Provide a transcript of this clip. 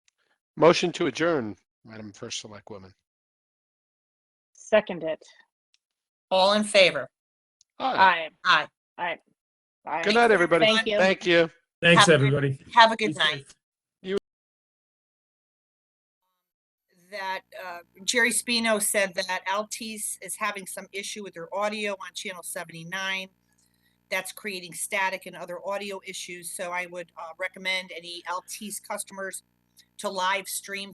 Motion to adjourn, Madam First Select Woman. Second it. All in favor? Aye. Aye. Aye. Aye. Aye. Good night, everybody. Thank you. Thank you. Thanks, Have a good- everybody. Have a good Be safe. night. That uh, Jerry Spino said that Altice is having some issue with their audio on channel 79. That's creating static and other audio issues. So I would uh, recommend any Altice customers to live stream